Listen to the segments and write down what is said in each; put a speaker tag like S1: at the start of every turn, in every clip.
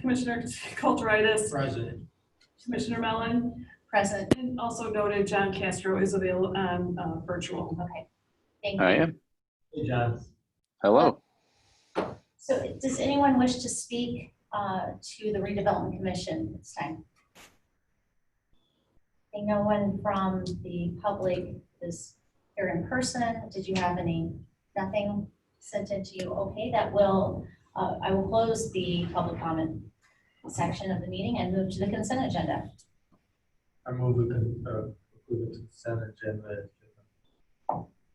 S1: Commissioner Kulturitis,
S2: President.
S1: Commissioner Mellon,
S3: Present.
S1: and also noted John Castro is available on uh, virtual.
S3: Okay. Thank
S4: I
S3: you.
S4: am.
S2: Hey, John.
S4: Hello.
S3: So does anyone wish to speak uh, to the redevelopment commission this time? I think no one from the public is here in person. Did you have any, nothing sent in to you? Okay, that will, uh, I will close the public comment section of the meeting and move to the consent agenda.
S2: I move we can, uh, approve the consent agenda.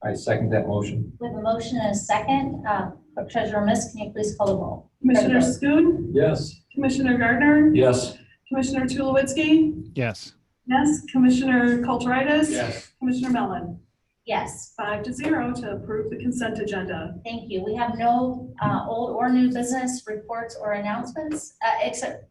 S5: I second that motion.
S3: With a motion and a second, uh, Clerk Treasurer Miss, can you please call the roll?
S1: Commissioner Schoon,
S5: Yes.
S1: Commissioner Gardner,
S5: Yes.
S1: Commissioner Tulowitzki,
S6: yes,
S1: yes, Commissioner Kulturitis,
S2: Yes.
S1: Commissioner Mellon,
S3: Yes.
S1: five to zero to approve the consent agenda.
S3: Thank you. We have no uh, old or new business reports or announcements, uh, except,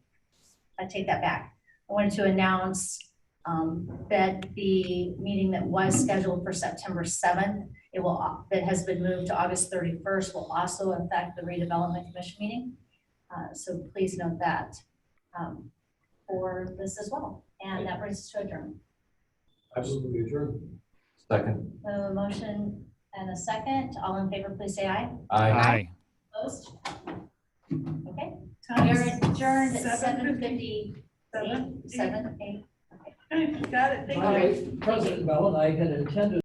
S3: I take that back. I wanted to announce um, that the meeting that was scheduled for September 7th, it will, that has been moved to August 31st, will also affect the redevelopment commission meeting. Uh, So please note that um, for this as well. And that brings us to adjournment.
S5: Absolutely adjourned. Second.
S3: We have A motion and a second. All in favor, please say aye.
S6: aye.
S3: Opposed? Okay.
S1: Time
S3: We are
S1: is
S3: adjourned at
S1: 7:57.
S3: seven fifty,
S1: Seven.
S3: seven, eight.
S1: Okay, Got it, thank you.
S7: Hi, President Mellon, I had intended